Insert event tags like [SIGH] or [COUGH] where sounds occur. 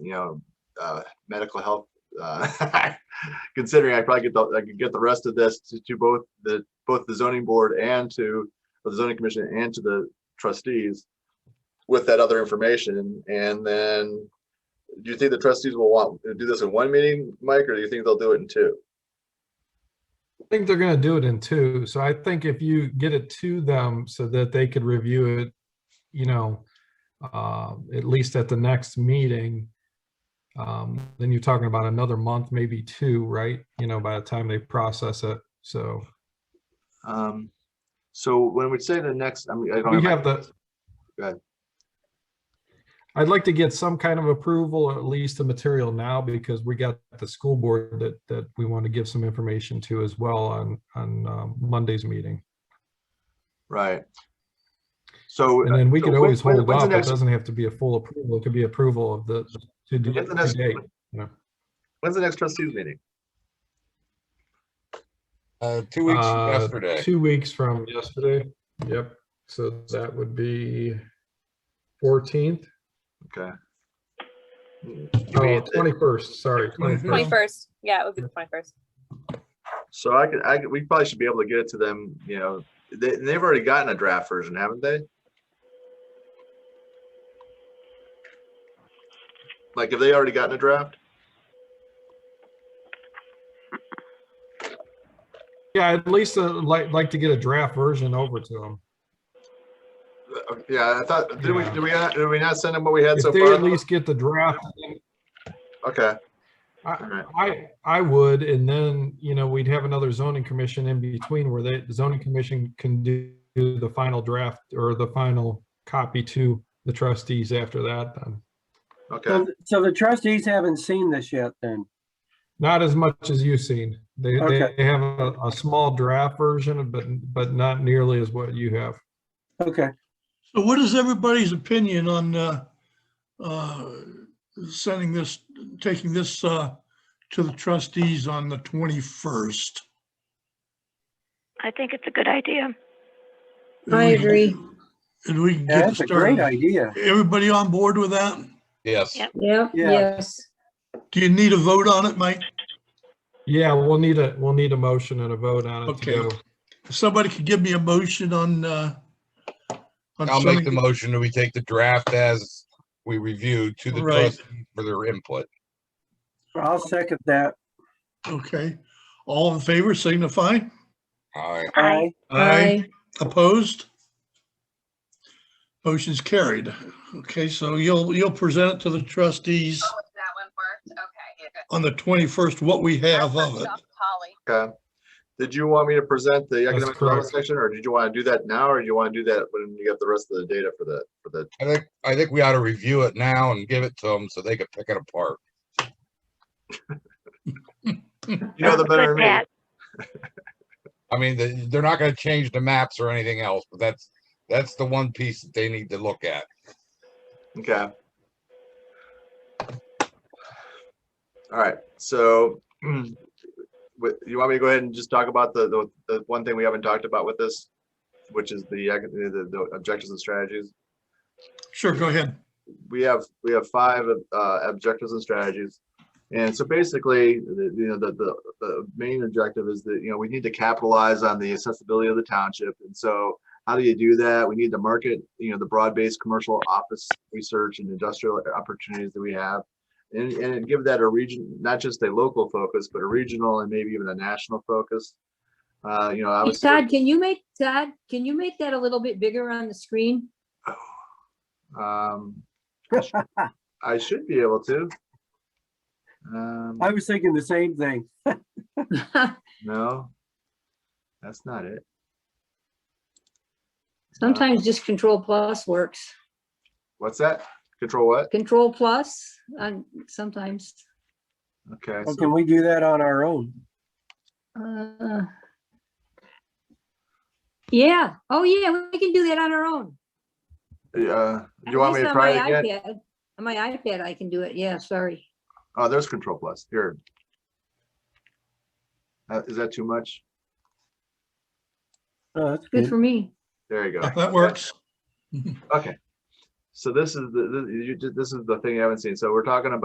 you know, uh, medical health. Uh, [LAUGHS] considering I probably get the, I could get the rest of this to, to both the, both the zoning board and to or the zoning commission and to the trustees with that other information. And then do you think the trustees will want, do this in one meeting, Mike, or do you think they'll do it in two? I think they're gonna do it in two, so I think if you get it to them so that they could review it, you know, uh, at least at the next meeting, um, then you're talking about another month, maybe two, right? You know, by the time they process it, so Um, so when we say the next, I mean, I don't. we my- have the. Go ahead. I'd like to get some kind of approval, or at least the material now, because we got the school board that, that we want to give some information to as well on, on um, Monday's meeting. Right. So. And then we so could when- always when- hold when's the off. It next- doesn't have to be a full approval. It could be approval of the, to do When's the next- today. When's the next trustees meeting? Uh, two weeks from Uh, yesterday. Two weeks from yesterday. Yep. So that would be fourteenth, Okay. oh, twenty-first, sorry. Mm-hmm. 21st. 21st. Yeah, it would be the 21st. So I could, I could, we probably should be able to get it to them, you know, they, they've already gotten a draft version, haven't they? Like, have they already gotten a draft? Yeah, at least uh, like, like to get a draft version over to them. Uh, Yeah, I thought, did we, Yeah. did we, not- did we not send them what we had so If they far? at least get the draft, Okay, all I, right, I, I would, and then, you know, we'd have another zoning commission in between where they, the zoning commission can do do the final draft or the final copy to the trustees after that, then. okay. Um, So th- so the trustees haven't seen this yet then? Not as much as you've seen. They, Okay. they have a, a small draft version, but, but not nearly as what you have. Okay, So what is everybody's opinion on uh, uh, sending this, taking this uh, to the trustees on the 21st? I think it's a good idea. And I we can- agree. And we can Yeah, get it that's a great started. idea. Everybody on board with that? Yes. Yep. Yeah, Yeah. yes. Do you need a vote on it, Mike? Yeah, we'll need a, we'll need a motion and a vote on it to Okay. go. If somebody could give me a motion on. uh, on I'll make the sending- motion that we take the draft as we reviewed to the Right. trustees for their input. I'll second that. Okay, all in favor signify. All right. I Aye. Opposed? Motion's carried. Okay, so you'll, you'll present it to the trustees That one worked, okay. good. on the 21st, what we have That of worked it. off Polly. Okay. Did you want me to present the economic development correct. section, or did you want to do that now, or do you want to do that when you get the rest of the data for the, for the, I think, I think we ought to review it now and give it to them so they can pick it apart. you know, the Sounds good, better. than me. Pat. I mean, they- they're not gonna change the maps or anything else, but that's, that's the one piece that they need to look at. Okay. All right, so [CLEARS THROAT] with, you want me to go ahead and just talk about the, the, the one thing we haven't talked about with this? Which is the, ec- the, the objectives and strategies? Sure, go ahead. we have we have five uh, objectives and strategies. And so basically, the, you know, the, the the main objective is that you know we need to capitalize on the accessibility of the township. And so, how do you do that? We need to market you know the broad-based commercial office research and industrial opportunities that we have, and and give that a region, not just a local focus, but a regional and maybe even a national focus. Uh, you know, Hey, obviously, Todd, can you make, Todd, can you make that a little bit bigger on the screen? [LAUGHS] um, I should be able to. Um, I was thinking the same thing. No. That's not it. Sometimes just control plus works. What's that? Control what? Control plus, um, sometimes. Okay, Well, so, Can we do that on our own? uh, Yeah, oh yeah, we can do that on our own. uh, do At you want me least to on try my it again? iPad- On my iPad, I can do it. Yeah, sorry. Oh, there's control plus, here. Uh, is that too much? Oh, that's Good good. for me. There you go. If [LAUGHS] that works. Okay. So this is the, the- you ju- this is the thing you haven't seen. So we're talking about